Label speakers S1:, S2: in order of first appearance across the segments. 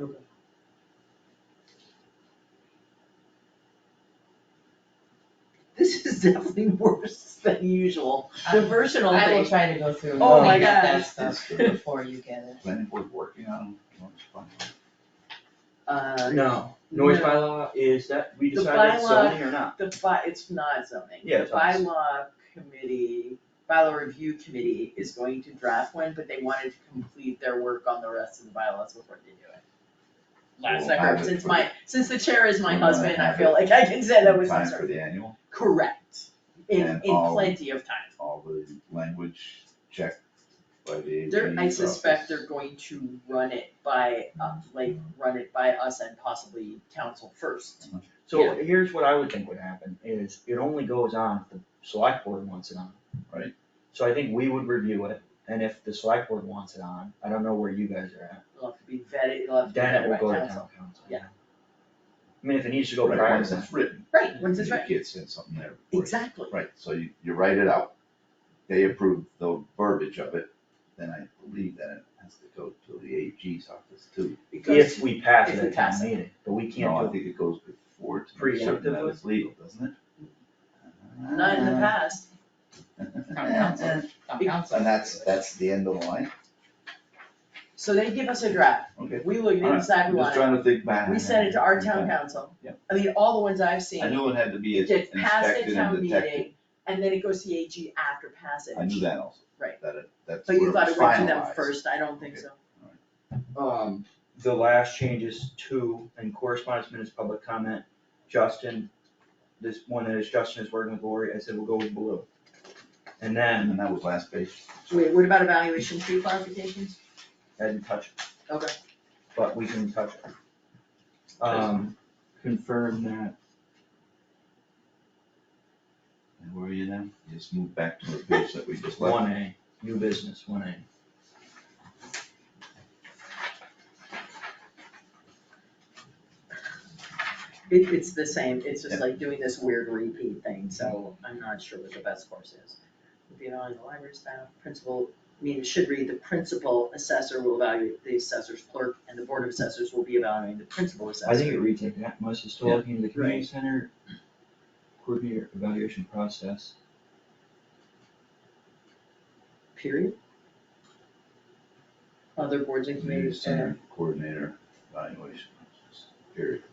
S1: Okay.
S2: This is definitely worse than usual, the versatile
S3: I will
S2: thing.
S3: try to go through and
S2: Oh
S1: my
S3: clean up that
S2: gosh.
S3: stuff before you get it.
S4: planning board working on lunch bylaw?
S2: Uh,
S1: No, noise
S2: No.
S1: bylaw is that, we
S2: The
S1: decided it's
S2: bylaw-
S1: zoning or not?
S2: The by, it's not zoning.
S1: Yeah,
S2: The
S1: it's not.
S2: bylaw committee, bylaw review committee is going to draft one, but they wanted to complete their work on the rest of the bylaws before they do it. Last I
S4: We'll
S2: heard,
S4: have it
S2: since
S4: for
S2: my, since the chair is my
S4: We're gonna
S2: husband, I
S4: have
S2: feel
S4: it
S2: like I can say that
S4: the-
S2: was my
S4: Time for
S2: concern.
S4: the annual,
S2: Correct, in,
S4: And
S2: in
S4: all-
S2: plenty of time.
S4: all the language checked by the AG's
S2: They're, I suspect
S4: office.
S2: they're going to run it by, uh, like, run it by us and possibly council first.
S1: So here's what I would think would happen is it only goes on if the select board wants it on.
S4: Right.
S1: So I think we would review it and if the select board wants it on, I don't know where you guys are at,
S2: It'll have to be vetted, it'll have to be
S1: then it
S2: vetted by
S1: will go to
S2: council.
S1: town council.
S2: Yeah.
S1: I mean, if it needs to go
S4: Right,
S1: prior
S4: once
S1: to that.
S4: it's written,
S2: Right, once it's
S4: you
S2: right,
S4: can't send something there. before it's-
S2: exactly.
S4: Right, so you, you write it out, they approve the verbiage of it, then I believe that it has to go to the AG's office too.
S2: It goes
S1: If we pass
S2: if
S1: it
S2: we
S1: at town
S2: pass it.
S1: meeting, but we
S4: No, I
S1: can't do
S4: think it goes before to make certain that
S1: Preemptively?
S4: it's legal, doesn't it?
S2: to- not in the
S1: Uh,
S2: past,
S3: Town council, town council.
S4: And that's, that's the end of the line,
S2: so they give us a draft,
S4: okay.
S2: we look at it,
S4: Alright,
S2: decide
S4: I'm
S2: we
S4: just
S2: want it,
S4: trying to think back.
S2: we send it to our town
S4: Okay.
S2: council.
S4: Yep.
S2: I mean, all the ones I've
S4: I
S2: seen,
S4: knew it had to be
S2: it gets passed at
S4: inspected
S2: town
S4: and detected,
S2: meeting, and then it goes to the AG after passage.
S4: I knew that also.
S2: Right.
S4: That it, that's
S2: But
S4: where it
S2: you
S4: was
S2: thought it went to them
S4: finalized.
S2: first, I don't think so.
S1: Um, the last changes to, and correspondence minutes, public comment, Justin, this one that is Justin is working with Lori, I said we'll go with blue. And then,
S4: And that was last page.
S2: Wait, what about evaluation two clarifications?
S1: I didn't touch it.
S2: Okay.
S1: But we can touch it. Um, confirm that,
S4: And where are you then? You Just move back to the page that we just left.
S1: one A, new business, one A.
S2: It, it's the same, it's just
S4: Yeah.
S2: like doing this weird repeat thing, so I'm not sure what the best course is. Would be allowing the library staff, principal, I mean, it should read, the principal assessor will evaluate the assessor's clerk, and the board of assessors will be evaluating the principal assessor.
S1: I think it reads like that, most historic in the community center, coordinator evaluation process.
S2: Period. Other boards and
S4: Community
S2: committees, uh,
S4: center coordinator evaluation, period.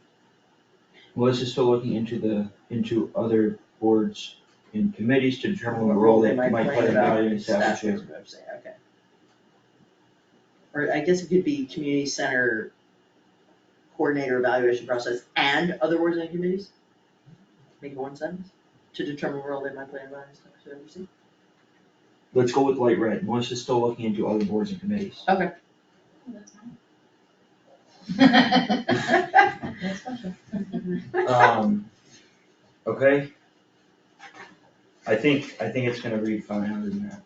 S1: Well, this is still looking into the, into other boards and committees to determine what role they might play in value and
S2: Staff
S1: establishing.
S2: members, I'd say, okay. Or I guess it could be community center coordinator evaluation process and other boards and committees? Make it one sentence, to determine what role they might play in value services.
S1: Let's go with light red, Melissa's still looking into other boards and committees.
S3: That's special.
S1: Um, okay. I think, I think it's gonna read fine other than that.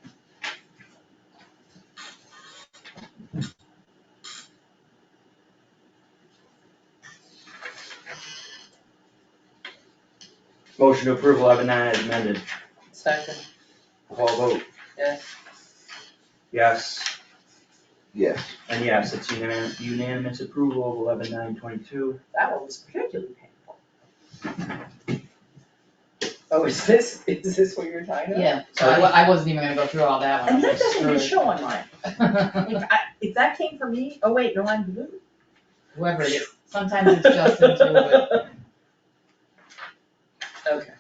S1: Motion to approve eleven nine as amended,
S3: Second,
S1: roll call vote,
S3: yes.
S1: yes,
S4: Yes,
S1: and yes, it's unanimous, unanimous approval of eleven nine twenty-two.
S2: That one was particularly painful. Oh, is this, is this what you're talking about?
S3: Yeah, so I, wa- I wasn't even gonna go through all that one.
S2: And that doesn't even show on mine.
S3: show.
S2: If I, if that came from me, oh wait, no, I'm blue.
S3: Whoever it is, sometimes it's Justin too, but
S2: Okay.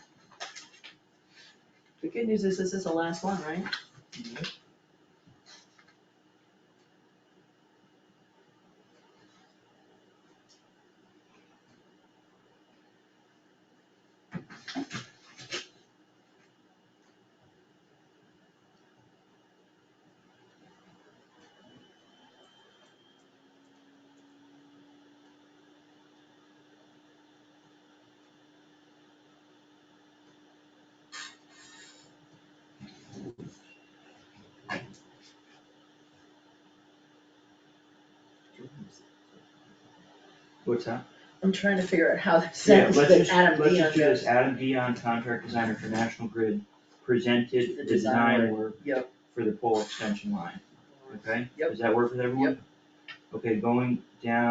S2: The good news is this is the last one, right?
S1: What's that?
S2: I'm trying to figure out how that
S1: Yeah,
S2: sounds,
S1: let's
S2: but
S1: just,
S2: Adam
S1: let's
S2: Dion
S1: just do this,
S2: goes,
S1: Adam Dion, contract designer for National Grid, presented
S2: The
S1: the
S2: design
S1: design work
S2: yep.
S1: for the pole extension line, okay?
S2: Yep.
S1: Does that work with everyone? Okay, going down